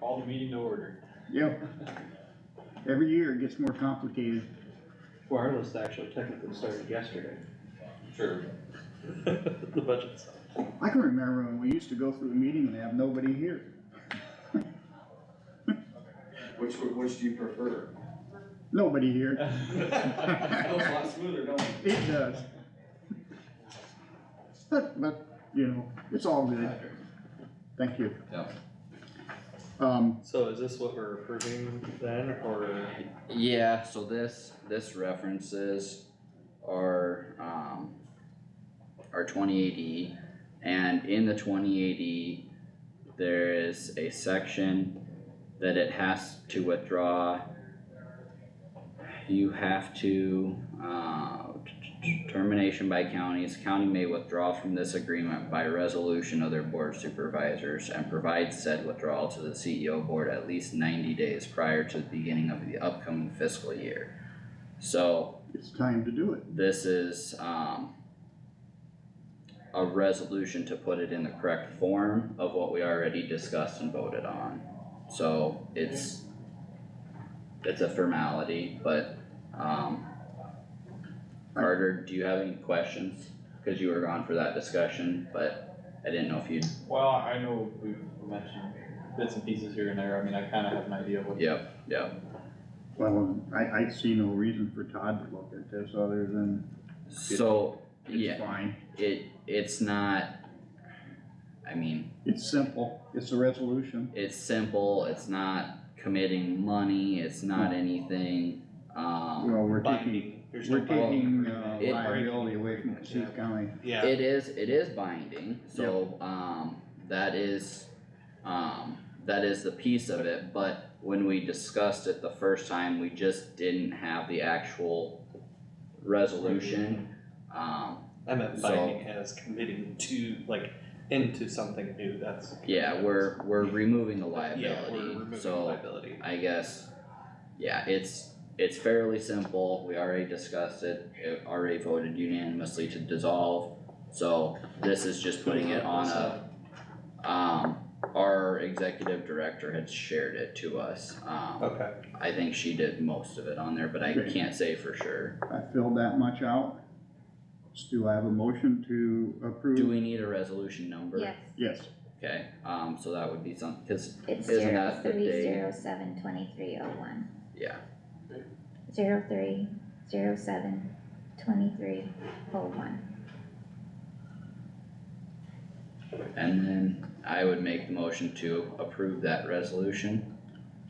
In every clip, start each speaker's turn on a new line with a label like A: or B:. A: Call the meeting to order.
B: Yep. Every year it gets more complicated.
A: Wireless actually technically started yesterday,
C: Sure.
A: the budget stuff.
B: I can remember when we used to go through the meeting and have nobody here.
C: Which, one- which do you prefer?
B: Nobody here.
C: Sounds a lot smoother, don't it?
B: It does. But, but, you know, it's all good. Thank you.
C: Yeah.
B: Um,
A: So is this what we're approving then, or
D: Yeah, so this, this references our, um, our twenty eighty, and in the twenty eighty, there is a section that it has to withdraw. You have to, uh, termination by counties, county may withdraw from this agreement by resolution of their board of supervisors and provide said withdrawal to the CEO board at least ninety days prior to the beginning of the upcoming fiscal year. So
B: it's time to do it.
D: this is, um, a resolution to put it in the correct form of what we already discussed and voted on. So it's, it's a formality, but, um, Carter, do you have any questions? Cause you were gone for that discussion, but I didn't know if you'd,
A: Well, I know we've mentioned bits and pieces here and there, I mean, I kinda have an idea of what.
D: yep, yep.
B: Well, I, I see no reason for Todd to look at this other than
D: So,
B: it's
D: yeah,
B: fine.
D: it, it's not, I mean,
B: It's simple. It's a resolution.
D: it's simple, it's not committing money, it's not anything, um,
B: Well, we're taking,
A: Binding, there's no
B: we're taking,
A: binding.
B: uh,
D: It-
B: liability away from Cassuth County.
A: Yeah,
D: it is, it is binding, so, um, that is, um, that is the piece of it, but when we discussed it the first time, we just didn't have the actual resolution, um,
A: I meant
D: so-
A: binding as committing to, like, into something new, that's.
D: yeah, we're, we're removing the
A: Yeah, we're
D: liability,
A: removing
D: so.
A: liability.
D: I guess, yeah, it's, it's fairly simple, we already discussed it, it already voted unanimously to dissolve. So this is just putting it on a, um, our executive director had shared it to us, um,
A: Okay,
D: I think she did most of it on there, but I
B: Okay.
D: can't say for sure.
B: I filled that much out. Still have a motion to
D: Do
B: approve?
D: we need a resolution number?
E: Yes,
B: Yes.
D: Okay, um, so that would be some, cause,
E: it's
D: Isn't
E: zero
D: that the
E: three
D: date?
E: zero seven twenty-three oh one,
D: yeah,
E: zero three zero seven twenty-three oh one.
D: and then I would make the motion to approve that resolution,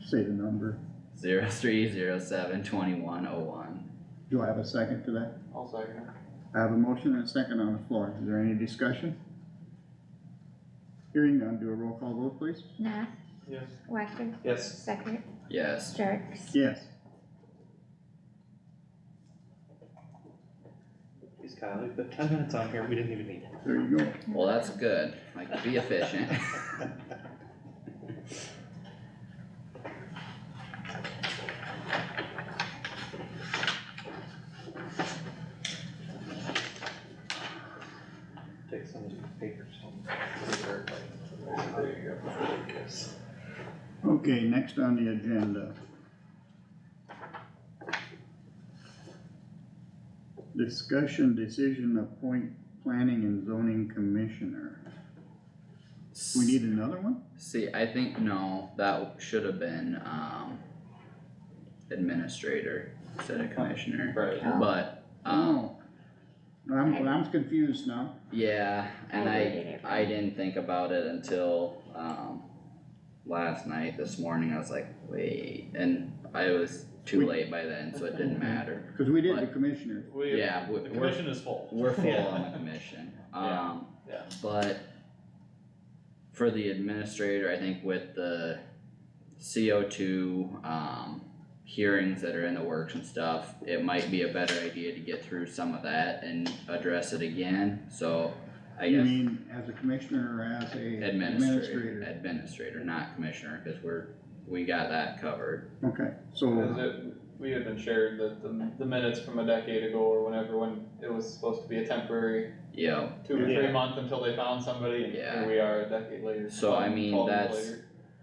B: Say the number.
D: zero three zero seven twenty-one oh one.
B: Do I have a second to that?
A: I'll second.
B: I have a motion and a second on the floor. Is there any discussion? Hearing none, do a roll call vote, please.
E: Nath,
A: Yes.
E: Wacker,
A: Yes,
E: Stecker,
D: Yes,
E: Jerks,
B: Yes.
A: geez, Kyle, we put ten minutes on here, we didn't even need it.
B: There you go.
D: well, that's good, like, be efficient.
A: Take some of these papers home. There you go. Yes.
B: Okay, next on the agenda. Discussion decision appoint planning and zoning commissioner. We need another one?
D: See, I think, no, that should have been, um, administrator instead of commissioner,
A: Right.
D: but, um,
B: I'm, I'm confused now.
D: yeah, and I,
E: worded it
D: I
E: wrong.
D: didn't think about it until, um, last night, this morning, I was like, wait, and I was too
B: We-
D: late by then, so it didn't matter.
B: Cause we did the
D: What?
B: commissioner.
A: We-
D: Yeah, we-
A: The
D: we're,
A: commission is full.
D: we're full
A: Yeah.
D: on the commission,
A: Yeah.
D: um,
A: Yeah.
D: But for the administrator, I think with the CO two, um, hearings that are in the works and stuff, it might be a better idea to get through some of that and address it again, so I
B: You
D: guess
B: mean as a commissioner or as a
D: administrator,
B: administrator?
D: administrator, not commissioner, cause we're, we got that covered.
B: Okay,
F: Is
B: so,
F: it, we had been shared that the, the minutes from a decade ago or whenever, when it was supposed to be a temporary
D: Yep,
F: two or
A: Yeah.
F: three month until they found somebody, and
D: Yeah.
F: here we are a decade later.
D: so I mean,
F: twelve months
D: that's,
F: later.